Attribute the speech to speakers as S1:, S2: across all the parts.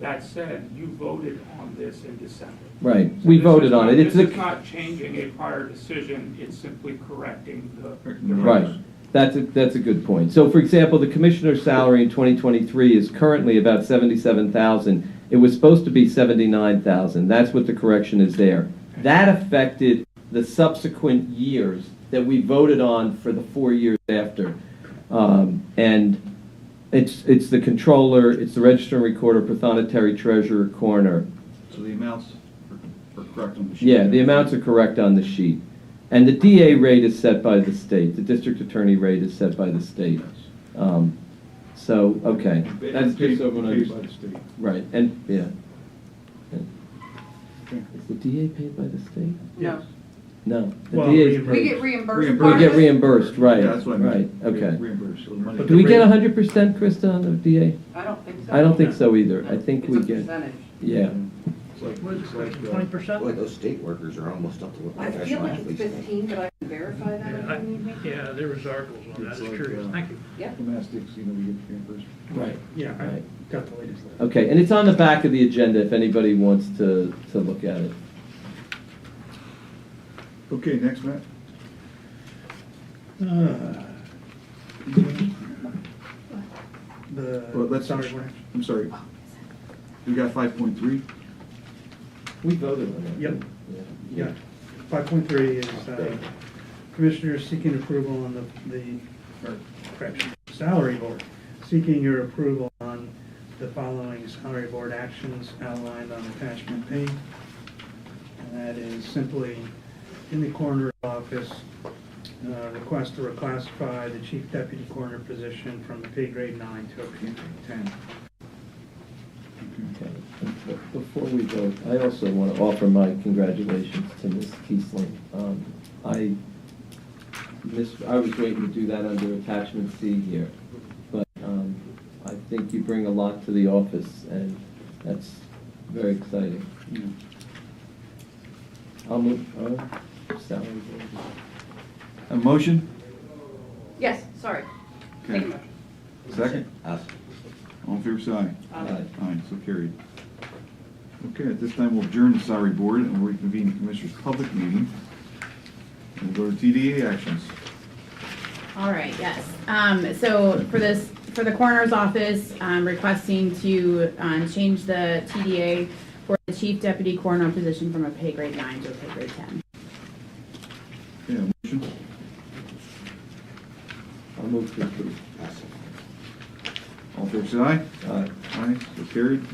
S1: That said, you voted on this in December.
S2: Right,
S1: So
S2: we
S1: this is
S2: voted on
S1: not-
S2: it, it's
S1: This is
S2: a,
S1: not changing a prior decision, it's simply correcting the. the
S2: right,
S1: record.
S2: that's a, that's a good point. So for example, the commissioner's salary in 2023 is currently about 77,000. It was supposed to be 79,000, that's what the correction is there. That affected the subsequent years that we voted on for the four years after. Um, And it's, it's the controller, it's the register and recorder, prothonotary treasurer, coroner.
S3: So the amounts are- are correct on the sheet?
S2: Yeah, the amounts are correct on the sheet. And the DA rate is set by the state, the district attorney rate is set by the state. Um, So, okay, that's just so everyone
S3: Paid by the
S2: understands.
S3: state.
S2: Right, and, yeah. Yeah.
S3: Okay.
S2: Is the DA paid by the state?
S4: No,
S2: No. the
S5: Well,
S2: DA is-
S5: reimbursed.
S4: we get reimbursed.
S3: Reimbursed.
S2: We get
S4: part of it.
S2: reimbursed, right,
S3: Yeah, that's what I
S2: right,
S3: meant.
S2: okay.
S3: Reimbursed, so the money.
S5: But
S2: Do we get hundred percent, Krista, on the DA?
S4: I don't think so.
S2: I don't think so either, I think we
S4: It's a
S2: get,
S4: percentage.
S2: yeah.
S3: It's like- it's like, uh,
S5: Twenty percent?
S6: Boy, those state workers are almost up to what
S4: I feel
S6: professional
S4: like it's
S6: athletes make.
S4: fifteen, but I can verify that
S5: Yeah,
S4: if you need me.
S5: I- yeah, there was articles on that, I
S3: It's
S5: was
S3: like,
S5: curious,
S3: uh,
S5: thank you.
S4: Yeah.
S3: Domestics, you know, we get reimbursed.
S2: Right.
S5: Yeah, I
S2: Right.
S5: got the latest.
S2: Okay, and it's on the back of the agenda if anybody wants to, to look at it.
S3: Okay, next, Matt.
S5: Uh,
S3: Well,
S5: The
S3: let's,
S5: salary range.
S3: I'm sorry. We got five point three?
S2: We voted on that.
S5: Yep.
S2: Yeah.
S5: Yeah, five point three is, uh, commissioners seeking approval on the, the, or correction, salary board, seeking your approval on the following salary board actions outlined on attachment P. And that is simply in the coroner office, uh, request to reclassify the chief deputy coroner position from a pay grade nine to a pay grade ten.
S2: Okay. But Before we vote, I also want to offer my congratulations to Ms. Kiesling. Um, I, miss, I was waiting to do that under attachment C here, but um, I think you bring a lot to the office, and that's very exciting. I'll move, uh, salary board.
S3: A motion?
S4: Yes, sorry. Thank you.
S3: Second?
S6: Us.
S3: All in favor, say aye.
S4: Um,
S3: Aye, so carried. Okay, at this time, we'll adjourn the salary board and we'll reconvene the commissioners' public meeting. And We'll go to TDA actions.
S7: All right, yes. Um, so for this, for the coroner's office, um, requesting to, um, change the TDA for the chief deputy coroner position from a pay grade nine to a pay grade ten.
S3: Okay, a motion?
S2: I'll move to approve.
S6: Us.
S3: All in favor, say aye.
S2: Aye.
S3: Aye, so carried.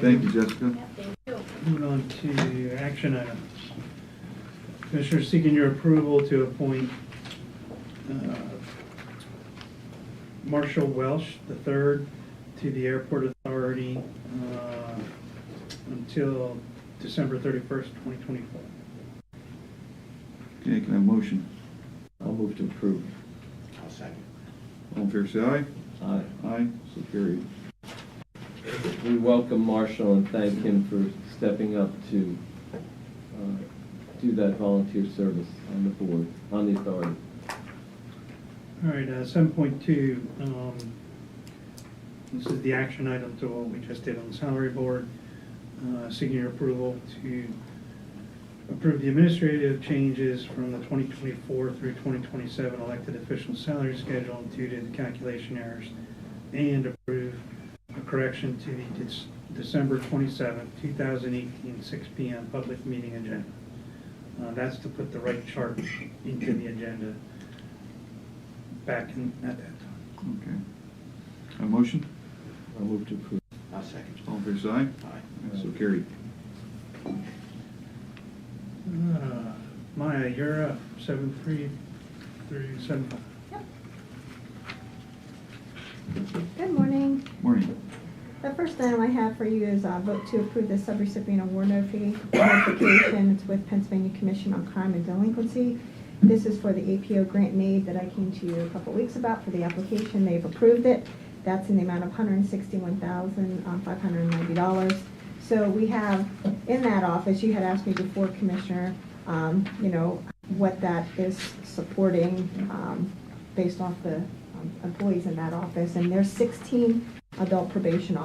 S3: Thank you, Jessica.
S5: Moving on to action items. Commissioner seeking your approval to appoint uh, Marshall Welsh III to the Airport Authority uh, until December 31st, 2024.
S3: Okay, can I have a motion?
S2: I'll move to approve.
S6: I'll second.
S3: All in favor, say aye.
S2: Aye.
S3: Aye, so carried.
S2: We welcome Marshall and thank him for stepping up to uh, do that volunteer service on the board, on the authority.
S5: All right, uh, 7.2, um, this is the action item to what we just did on the salary board, uh, seeking your approval to approve the administrative changes from the 2024 through 2027 elected official salary schedule due to the calculation errors, and approve a correction to the Dec- December 27, 2018, 6 PM public meeting agenda. Uh, That's to put the right chart into the agenda back in, at that time.
S3: Okay. A motion?
S2: I'll move to approve.
S6: I'll second.
S3: All in favor, say aye.
S6: Aye.
S3: So carried.
S5: Uh, Maya, you're up, seven three through seven five.
S8: Good morning.
S3: Morning.
S8: The first item I have for you is uh, vote to approve the subrecipient award notifi- notification. It's with Pennsylvania Commission on Crime and Delinquency. This is for the APO grant and aid that I came to you a couple weeks about for the application. They've approved it. That's in the amount of uh, $161,590. So we have, in that office, you had asked me before, Commissioner, um, you know, what that is supporting um, based off the um, employees in that office. And there's 16 adult probation